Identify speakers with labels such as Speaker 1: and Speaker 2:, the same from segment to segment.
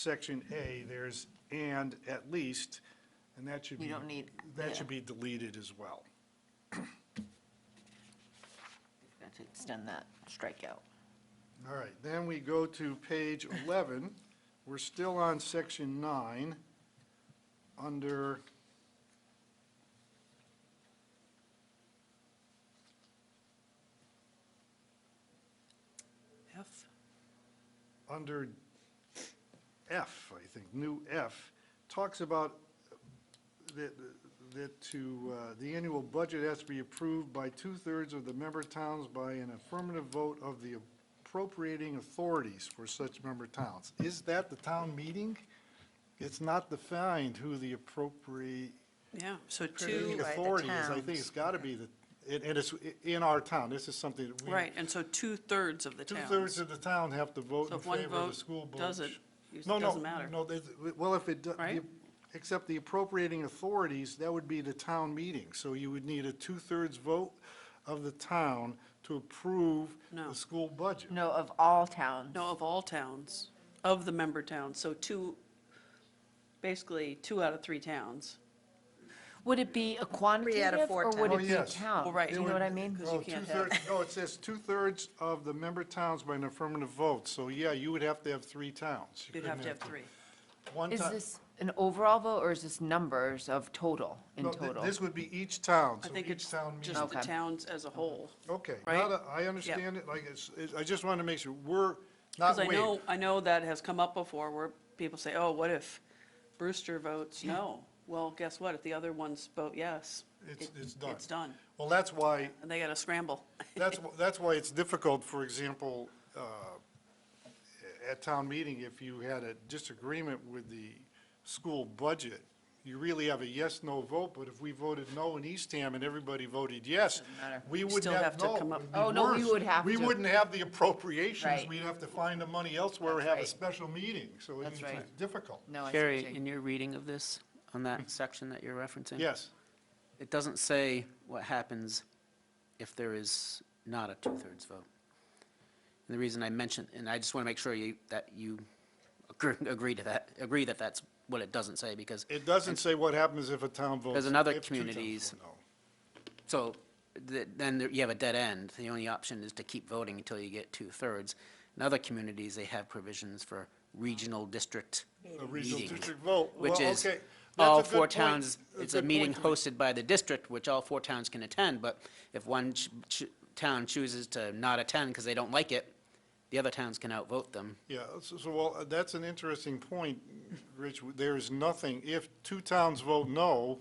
Speaker 1: section A, there's and at least, and that should
Speaker 2: You
Speaker 1: be.
Speaker 2: don't need- yeah.
Speaker 1: That should be deleted as well.
Speaker 2: Got to extend that strikeout.
Speaker 1: All right, then we go to page 11. We're still on section nine, under,
Speaker 3: F?
Speaker 1: under F, I think, new F, talks about that, that to, uh, the annual budget has to be approved by two-thirds of the member towns by an affirmative vote of the appropriating authorities for such member towns. Is that the town meeting? It's not defined who the appropriate
Speaker 3: Yeah, so
Speaker 1: Creating
Speaker 3: two,
Speaker 2: by the
Speaker 1: authority is, I think
Speaker 2: towns.
Speaker 1: it's got to be the, and and it's in our town, this is something that we.
Speaker 3: right, and so two-thirds of the
Speaker 1: Two-thirds
Speaker 3: towns.
Speaker 1: of the town have to vote
Speaker 3: So
Speaker 1: in
Speaker 3: if one
Speaker 1: favor of the
Speaker 3: vote
Speaker 1: school board.
Speaker 3: doesn't, it
Speaker 1: No, no,
Speaker 3: doesn't matter.
Speaker 1: No, there's- well, if it, do- the-
Speaker 3: Right?
Speaker 1: except the appropriating authorities, that would be the town meeting. So you would need a two-thirds vote of the town to approve
Speaker 3: No.
Speaker 1: the school budget.
Speaker 2: No, of all towns.
Speaker 3: No, of all towns, of the member towns, so two, basically, two out of three towns.
Speaker 2: Would it be a
Speaker 4: out of
Speaker 2: quantitative
Speaker 4: four
Speaker 2: or would
Speaker 1: Oh,
Speaker 2: it be a
Speaker 1: yes.
Speaker 2: town?
Speaker 3: Well, right.
Speaker 2: Do you know what I mean?
Speaker 3: Because Mm-hmm.
Speaker 1: Oh,
Speaker 3: you can't
Speaker 1: two-thirds-
Speaker 3: have-
Speaker 1: No, it says two-thirds of the member towns by an affirmative vote. So, yeah, you would have to have three towns. You
Speaker 3: You'd have
Speaker 1: couldn't
Speaker 3: to have three.
Speaker 1: One
Speaker 2: Is
Speaker 1: ti-
Speaker 2: this an overall vote or is this numbers of total, in
Speaker 1: No, thi-
Speaker 2: total?
Speaker 1: This would be each town,
Speaker 3: I
Speaker 1: so
Speaker 3: think
Speaker 1: each
Speaker 3: it's
Speaker 1: town meeting.
Speaker 3: just the
Speaker 2: Okay.
Speaker 3: towns as a whole.
Speaker 1: Okay,
Speaker 3: right?
Speaker 1: now that I understand it, like, it's, it- I just want to make sure, we're not
Speaker 3: Because I
Speaker 1: waiting.
Speaker 3: know, I know that has come up before, where people say, oh, what if Brewster votes no? Well, guess what, if the other ones vote yes.
Speaker 1: It's-
Speaker 3: it-
Speaker 1: it's done.
Speaker 3: It's done,
Speaker 1: Well, that's why,
Speaker 3: and they gotta scramble.
Speaker 1: that's, wh- that's why it's difficult, for example, uh, at town meeting, if you had a disagreement with the school budget, you really have a yes/no vote, but if we voted no in Eastham and everybody voted yes, we wouldn't
Speaker 3: Still
Speaker 1: have,
Speaker 3: have to
Speaker 1: no.
Speaker 3: come up-
Speaker 1: it'd be
Speaker 2: Oh, no, we
Speaker 1: worse.
Speaker 2: would have
Speaker 1: We
Speaker 2: to.
Speaker 1: wouldn't have the appropriations,
Speaker 2: Right.
Speaker 1: we'd have to find the money elsewhere, or
Speaker 2: That's
Speaker 1: have a
Speaker 2: right.
Speaker 1: special meeting, so it's
Speaker 2: That's right.
Speaker 1: difficult.
Speaker 2: No, I see what you're
Speaker 5: Carrie,
Speaker 2: saying.
Speaker 5: in your reading of this, on that section that you're referencing?
Speaker 1: Yes.
Speaker 5: It doesn't say what happens if there is not a two-thirds vote. And the reason I mention, and I just want to make sure you, that you agree- agree to that, agree that that's what it doesn't say, because,
Speaker 1: It doesn't say what happens if a town votes.
Speaker 5: Because in other
Speaker 1: if two towns
Speaker 5: communities-
Speaker 1: vote no.
Speaker 5: so, th- then there- you have a dead end. The only option is to keep voting until you get two-thirds. In other communities, they have provisions for regional district
Speaker 1: A regional
Speaker 5: meetings.
Speaker 1: district vote.
Speaker 5: which
Speaker 1: Well,
Speaker 5: is
Speaker 1: okay. That's
Speaker 5: all
Speaker 1: a good
Speaker 5: four
Speaker 1: point.
Speaker 5: towns,
Speaker 1: That's
Speaker 5: it's a
Speaker 1: good
Speaker 5: meeting
Speaker 1: point to make.
Speaker 5: hosted by the district, which all four towns can attend, but if one ch- ch- town chooses to not attend because they don't like it, the other towns can outvote them.
Speaker 1: Yeah, so, so, well, uh, that's an interesting point, Rich. There is nothing, if two towns vote no,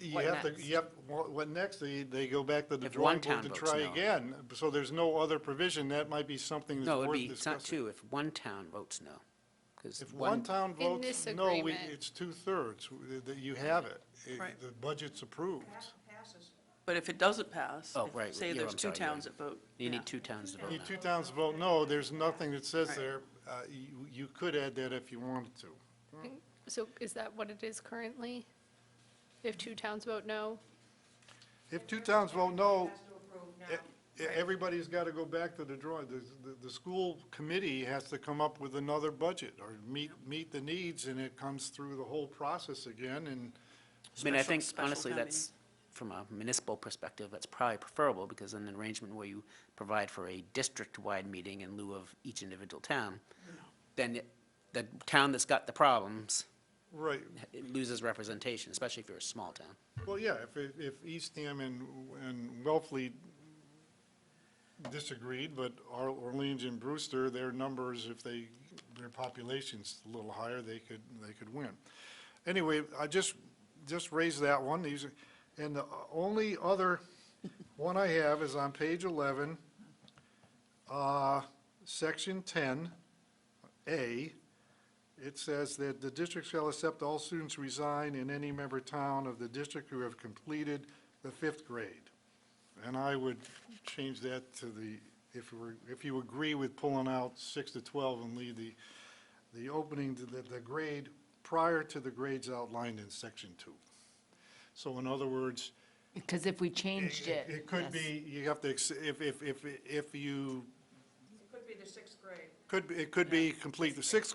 Speaker 1: you
Speaker 2: What
Speaker 1: have to,
Speaker 2: next?
Speaker 1: you have, what what next? They, they go back to the
Speaker 5: If one
Speaker 1: drawing board
Speaker 5: town
Speaker 1: to
Speaker 5: votes
Speaker 1: try
Speaker 5: no.
Speaker 1: again. So there's no other provision. That might be something that's
Speaker 5: No,
Speaker 1: worth
Speaker 5: it'd be,
Speaker 1: discussing.
Speaker 5: it's not two, if one town votes no. 'cause
Speaker 1: If one town votes
Speaker 4: this
Speaker 1: no, we-
Speaker 4: agreement-
Speaker 1: it's two-thirds. We- that You have it. It-
Speaker 3: Right.
Speaker 1: The budget's approved.
Speaker 3: But if it doesn't pass,
Speaker 5: Oh,
Speaker 3: if-
Speaker 5: right,
Speaker 3: say
Speaker 5: yeah,
Speaker 3: there's
Speaker 5: I'm
Speaker 3: two
Speaker 5: sorry, you're
Speaker 3: towns
Speaker 5: right.
Speaker 3: that vote.
Speaker 5: You
Speaker 3: yeah.
Speaker 5: need two towns to vote
Speaker 1: Need
Speaker 5: no.
Speaker 1: two towns vote no, there's nothing that says
Speaker 3: Right.
Speaker 1: there, uh, you, you could add that if you wanted to.
Speaker 4: So is that what it is currently? If two towns vote no?
Speaker 1: If two towns vote no, e- e- everybody's got to go back to the drawing, the, the, the school committee has to come up with another budget or meet, meet the needs, and it comes through the whole process again, and,
Speaker 5: I mean, I
Speaker 3: Special-
Speaker 5: think
Speaker 3: special
Speaker 5: honestly,
Speaker 3: town meeting.
Speaker 5: that's, from a municipal perspective, that's probably preferable, because in an arrangement where you provide for a district-wide meeting in lieu of each individual town, then it- the town that's got the problems
Speaker 1: right,
Speaker 5: it loses representation, especially if you're a small town.
Speaker 1: well, yeah, if, it- if Eastham and, and Wellfleet disagreed, but Ar- Orleans and Brewster, their numbers, if they, their population's a little higher, they could, they could win. Anyway, I just, just raised that one, these, are- and the only other one I have is on page eleven, uh, section ten, A. It says that the district shall accept all students resign in any member town of the district who have completed the fifth grade. And I would change that to the, if you were, if you agree with pulling out six to 12 and leave the, the opening to the, the grade prior to the grades outlined in section two. So in other words,
Speaker 2: Because if we changed it.
Speaker 1: it could
Speaker 2: yes.
Speaker 1: be, you have to, ex- if, if, if, if you,
Speaker 6: It could be the sixth grade.
Speaker 1: could, be- it could be complete the sixth